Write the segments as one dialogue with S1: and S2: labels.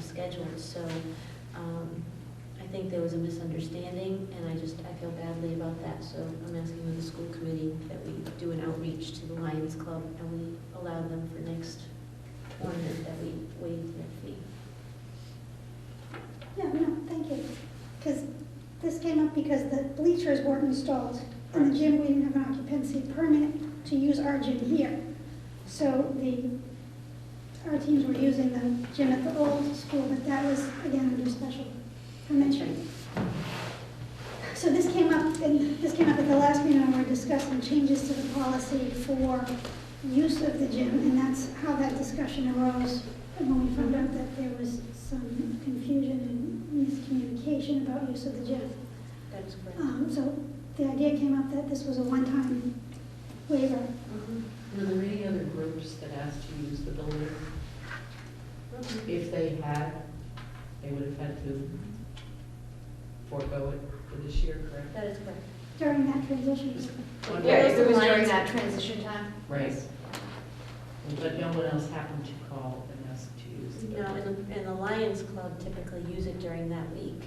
S1: scheduled, so um, I think there was a misunderstanding, and I just, I feel badly about that, so I'm asking of the school committee that we do an outreach to the Lions Club, and we allow them for next tournament that we waive their fee.
S2: No, no, thank you. Because this came up because the bleachers weren't installed. In the gym, we didn't have an occupancy permit to use our gym here. So the, our teams were using the gym at the old school, but that was, again, under special permission. So this came up, and this came up at the last meeting, when we were discussing changes to the policy for use of the gym, and that's how that discussion arose. And when we found out that there was some confusion and miscommunication about use of the gym.
S1: That's correct.
S2: Um, so the idea came up that this was a one-time waiver.
S3: Were there any other groups that asked to use the building? If they had, they would have had to forego it for this year, correct?
S1: That is correct.
S2: During that transition,
S3: One
S4: Yeah,
S3: way.
S4: it was during that transition time.
S3: Right. But no one else happened to call and ask to use the
S1: No,
S3: building.
S1: and the, and the Lions Club typically use it during that week.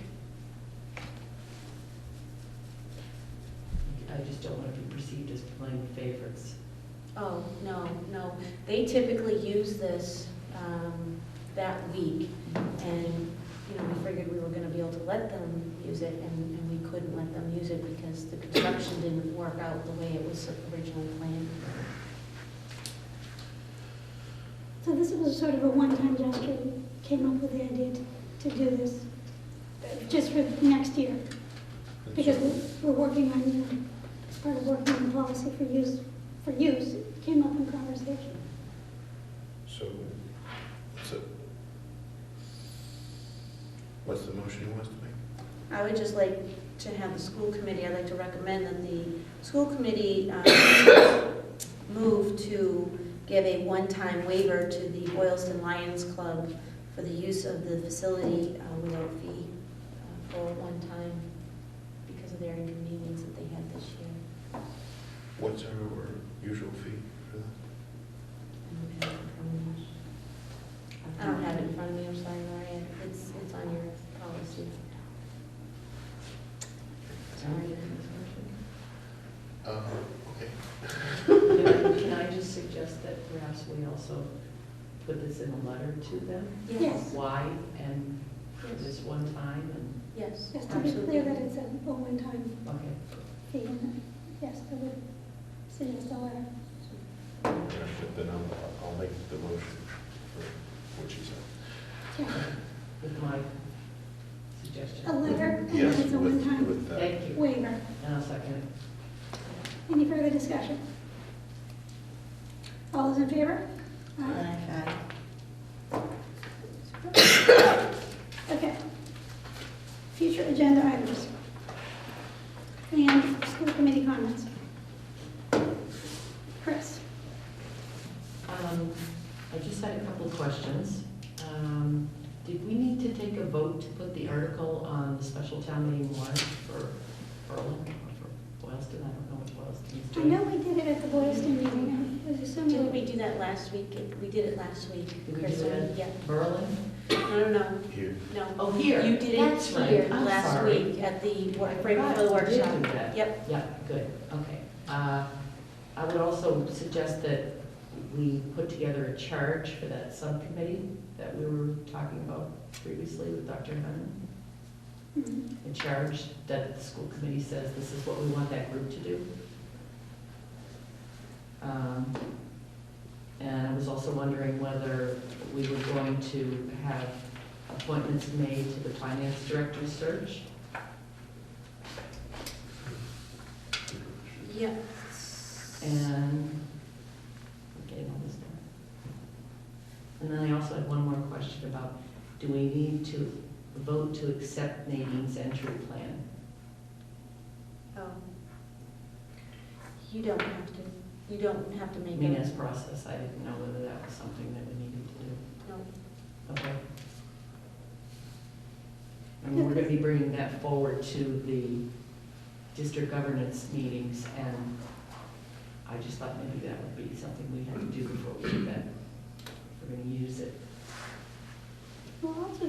S3: I just don't want to be perceived as playing favorites.
S1: Oh, no, no. They typically use this um, that week, and, you know, we figured we were gonna be able to let them use it, and and we couldn't let them use it because the construction didn't work out the way it was originally planned.
S2: so this was sort of a one-time gesture, we came up with the idea to, to do this, just for next year, because we- we're working on, you know, as part of working on the policy for use, for use, it came up in conversation.
S5: So, so, what's the motion you want us to make?
S1: I would just like to have the school committee, I'd like to recommend that the school committee um, move to give a one-time waiver to the Boylston Lions Club for the use of the facility uh, without fee uh, for one time because of their inconvenience that they had this year.
S5: What's our usual fee for that?
S1: I don't have it in front of me. I don't have it in front of me, I'm sorry, Maria, it's, it's on your policy. Sorry.
S5: Uh, okay.
S3: Can I just suggest that perhaps we also put this in a letter to them?
S2: Yes.
S3: Why and this one time and,
S1: Yes.
S2: Just to be clear that it's a a one-time
S3: okay.
S2: fee, and yes, I would suggest a letter.
S5: Then I'll, I'll make the motion for what she said.
S2: Yeah.
S3: with my
S2: A
S3: suggestion.
S2: letter, and then
S5: Yes,
S2: it's a
S5: with-
S2: one-time
S5: with uh, that.
S3: Thank you,
S2: waiver.
S3: and I'll second it.
S2: Any further discussion? All those in favor? Okay. Future agenda items. And school committee comments. Chris?
S3: Um, I just had a couple of questions. Um, Did we need to take a vote to put the article on the special town meeting warrant for Berlin or for Boylston? I don't know what Boylston is
S2: I
S3: doing.
S2: know we did it at the Boylston meeting, I was
S1: Didn't
S2: assuming
S1: we
S2: we
S1: do that last week? We did it last week.
S3: Did we
S1: Chris,
S3: do that?
S1: Yeah,
S3: Berlin?
S1: no, no, no,
S5: Here,
S1: no.
S3: Oh, here.
S1: You did it
S3: That's right.
S1: here
S3: I'm
S1: last
S3: sorry.
S1: week at the, wor-
S3: I
S1: right before the
S3: forgot we did do
S1: workshop.
S3: that.
S1: Yep,
S3: Yeah, good, okay. Uh, I would also suggest that we put together a charge for that subcommittee that we were talking about previously with Dr. Hunter.
S2: Mhm.
S3: a charge that the school committee says this is what we want that group to do. Um, And I was also wondering whether we were going to have appointments made to the finance director search.
S1: yep.
S3: And, I'm getting all this done. And then I also had one more question about, do we need to vote to accept Nadine's entry plan?
S1: Oh. You don't have to, you don't have to
S3: I
S1: make
S3: mean,
S1: it.
S3: as process, I didn't know whether that was something that we needed to do.
S1: No.
S3: Okay. And we're gonna be bringing that forward to the district governance meetings, and I just thought maybe that would be something we had to do before we do that. We're gonna use it
S2: Well, also